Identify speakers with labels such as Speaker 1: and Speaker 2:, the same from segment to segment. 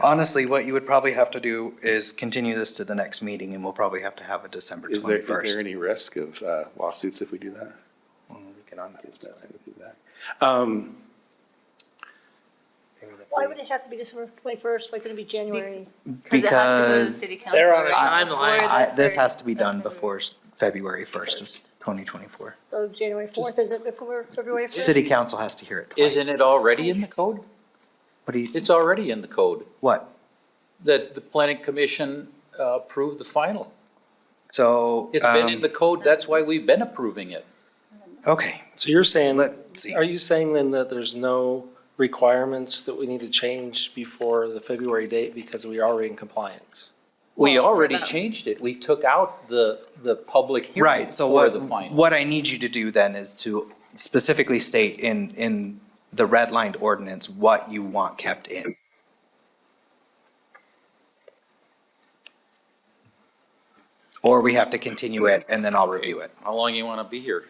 Speaker 1: Honestly, what you would probably have to do is continue this to the next meeting and we'll probably have to have a December
Speaker 2: Is there, is there
Speaker 1: twenty-first.
Speaker 2: any risk of uh, lawsuits if we do that? Um,
Speaker 3: Why would it have to be December twenty-first? Why couldn't it be January?
Speaker 4: Because it has to go to the
Speaker 1: Because
Speaker 4: city council.
Speaker 5: They're on a
Speaker 4: right
Speaker 5: timeline.
Speaker 4: before
Speaker 1: I,
Speaker 4: the
Speaker 1: this
Speaker 4: third-
Speaker 1: has to be done before s- February first of twenty twenty-four.
Speaker 3: So January fourth, is it before February fifth?
Speaker 1: City council has to hear it twice.
Speaker 6: Isn't it already in the code?
Speaker 1: What do you,
Speaker 6: It's already in the code
Speaker 1: what?
Speaker 6: that the planning commission uh, approved the final.
Speaker 1: So.
Speaker 6: It's been
Speaker 1: um,
Speaker 6: in the code, that's why we've been approving it.
Speaker 1: Okay,
Speaker 5: So you're saying,
Speaker 1: Let's see.
Speaker 5: are you saying then that there's no requirements that we need to change before the February date because we are already in compliance?
Speaker 6: We
Speaker 4: Well, for
Speaker 6: already
Speaker 4: them.
Speaker 6: changed it. We took out the, the public hearing
Speaker 1: right, so
Speaker 6: for
Speaker 1: what,
Speaker 6: the final.
Speaker 1: what I need you to do then is to specifically state in, in the redlined ordinance what you want kept in. Or we have to continue it and then I'll review it.
Speaker 6: How long you want to be here?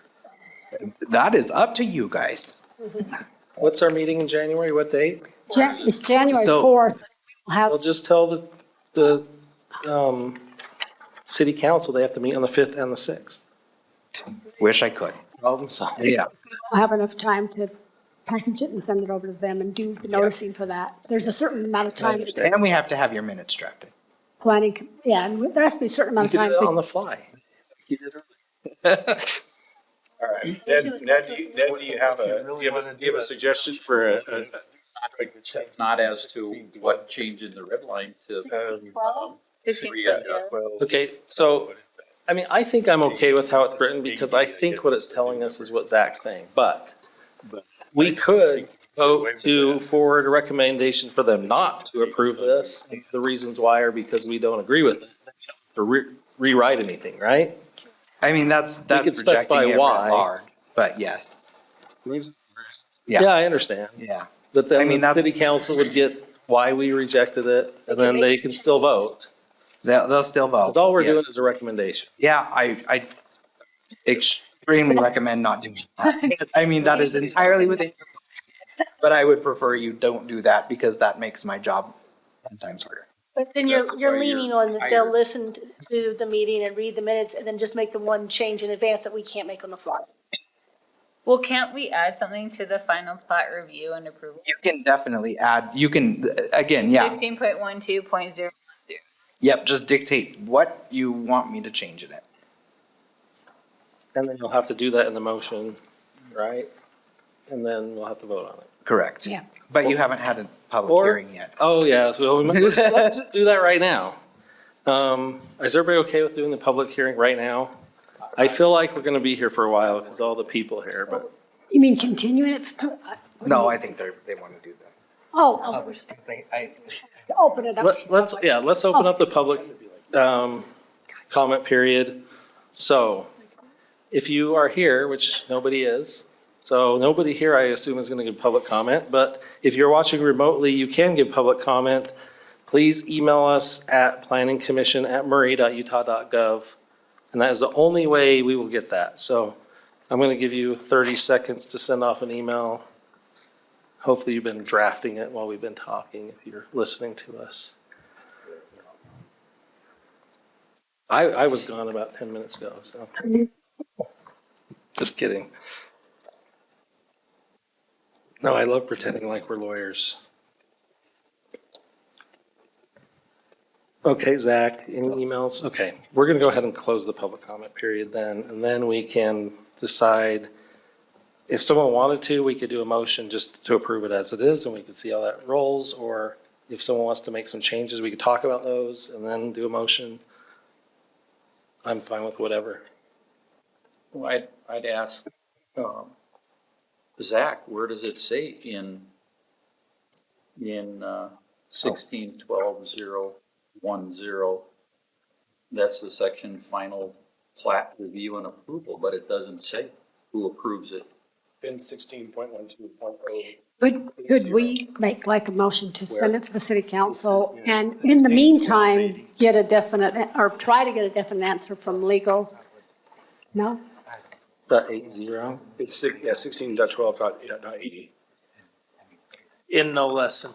Speaker 1: That is up to you guys.
Speaker 5: What's our meeting in January? What date?
Speaker 7: Jan- It's January
Speaker 1: So-
Speaker 7: 4th. We'll have-
Speaker 5: Well, just tell the, the, um, city council they have to meet on the fifth and the sixth.
Speaker 1: Wish I could.
Speaker 5: Problem solved.
Speaker 1: Yeah.
Speaker 7: we'll have enough time to package it and send it over to them and do the noticing for that. There's a certain amount of time, that the
Speaker 1: And we have to have your minutes drafted.
Speaker 7: planning, com- yeah, and there has to be a certain
Speaker 5: You
Speaker 7: amount
Speaker 5: can
Speaker 7: of
Speaker 5: do
Speaker 7: time.
Speaker 5: that
Speaker 7: be-
Speaker 5: on the fly.
Speaker 8: Ned, Ned, do you- Ned, do you have a, do you have a, do you have a suggestion for a, a-
Speaker 6: Not as to what change in the red line to.
Speaker 4: Twelve?
Speaker 6: Three, uh,
Speaker 5: Okay, so, I mean, I think I'm okay with how it's written because I think what it's telling us is what Zach's saying, but we could vote to forward a recommendation for them not to approve this. The reasons why are because we don't agree with it, to re- rewrite anything, right?
Speaker 1: I mean, that's, that's
Speaker 5: could specify
Speaker 1: rejecting it writ
Speaker 5: why.
Speaker 1: large, but yes,
Speaker 5: Yeah,
Speaker 1: yeah,
Speaker 5: I understand,
Speaker 1: yeah.
Speaker 5: but
Speaker 1: I
Speaker 5: then
Speaker 1: mean,
Speaker 5: the
Speaker 1: that-
Speaker 5: city council would get why we rejected it and then they can still vote.
Speaker 1: They'll, they'll still vote.
Speaker 5: Because all we're doing
Speaker 1: yes.
Speaker 5: is a recommendation.
Speaker 1: Yeah, I, I extremely recommend not doing that. I mean, that is entirely within. your But I would prefer you don't do that because that makes my job ten times harder.
Speaker 3: But then you're,
Speaker 6: That's
Speaker 3: you're
Speaker 6: why you're
Speaker 3: leaning on that they'll
Speaker 6: hired.
Speaker 3: listen to the meeting and read the minutes and then just make the one change in advance that we can't make on the fly.
Speaker 4: Well, can't we add something to the final plot review and approval?
Speaker 1: You can definitely add, you can, again, yeah,
Speaker 4: Fifteen point one two point zero.
Speaker 1: yep, just dictate what you want me to change in it.
Speaker 5: And then you'll have to do that in the motion, right? And then we'll have to vote on it.
Speaker 1: Correct.
Speaker 7: Yeah.
Speaker 1: But you haven't had a public
Speaker 5: Or-
Speaker 1: hearing yet.
Speaker 5: Oh, yeah, so we might- let's, let's just do that right now. Um, is everybody okay with doing the public hearing right now? I feel like we're gonna be here for a while because all the people here, but
Speaker 7: You mean continuing it?
Speaker 1: No, I think they're, they want to do that.
Speaker 7: Oh, oh, open it up.
Speaker 5: let- let's, yeah, let's open up the public, um, comment period. So if you are here, which nobody is, so nobody here, I assume, is gonna give public comment, but if you're watching remotely, you can give public comment. Please email us at planningcommission@murray.utah.gov. And that is the only way we will get that. So I'm going to give you 30 seconds to send off an email. Hopefully you've been drafting it while we've been talking, if you're listening to us. I, I was gone about 10 minutes ago, so. Just kidding. No, I love pretending like we're lawyers. Okay, Zach, any emails? Okay, we're going to go ahead and close the public comment period then, and then we can decide. If someone wanted to, we could do a motion just to approve it as it is, and we could see how that rolls, or if someone wants to make some changes, we could talk about those and then do a motion. I'm fine with whatever.
Speaker 6: Well, I'd, I'd ask, um, Zach, where does it say in, in, uh, sixteen twelve zero one zero? That's the section final plat review and approval, but it doesn't say who approves it.
Speaker 9: In sixteen point one two point oh.
Speaker 7: Could, could we make like a motion to send it to the city council?
Speaker 9: This is- yeah.
Speaker 7: And in the meantime, get a definite, or try to get a definite answer from legal? No?
Speaker 5: About eight zero.
Speaker 9: It's, six- yeah, sixteen dot twelve dot, dot eighty.
Speaker 5: In no less than